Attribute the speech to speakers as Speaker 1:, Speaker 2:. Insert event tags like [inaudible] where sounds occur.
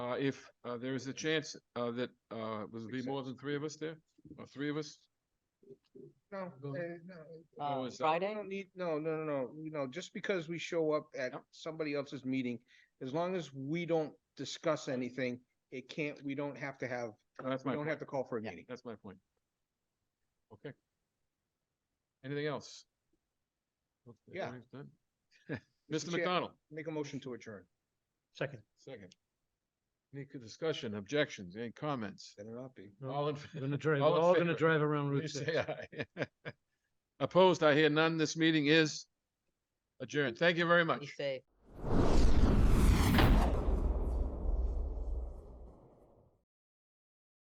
Speaker 1: if, uh, there is a chance, uh, that, uh, would it be more than three of us there? Or three of us?
Speaker 2: No,
Speaker 1: Go-
Speaker 2: eh, no,
Speaker 1: Oh,
Speaker 3: Uh,
Speaker 1: is that-
Speaker 2: I
Speaker 3: Friday?
Speaker 2: don't need, no, no, no, no, you know, just because we show up at
Speaker 1: Yep.
Speaker 2: somebody else's meeting, as long as we don't discuss anything, it can't, we don't have to have,
Speaker 1: uh, That's
Speaker 2: we
Speaker 1: my
Speaker 2: don't
Speaker 1: point.
Speaker 2: have to call for a
Speaker 3: Yeah.
Speaker 2: meeting.
Speaker 1: That's my point. Okay. Anything else? Okay,
Speaker 2: Yeah.
Speaker 1: everything's
Speaker 2: [laughs]
Speaker 1: done? Mr.
Speaker 2: Chair.
Speaker 1: McDonald,
Speaker 2: Make a motion to adjourn.
Speaker 4: Second.
Speaker 1: second. Any good discussion, objections, any comments?
Speaker 2: Better not be.
Speaker 4: No,
Speaker 1: All in,
Speaker 4: We're
Speaker 2: [laughs]
Speaker 1: favor,
Speaker 4: gonna drive, we're
Speaker 1: All in
Speaker 4: all gonna
Speaker 1: favor.
Speaker 4: drive around Route
Speaker 1: please
Speaker 4: six.
Speaker 1: say aye. [laughs] Opposed, I hear none. This meeting is adjourned. Thank you very much.
Speaker 3: Be safe.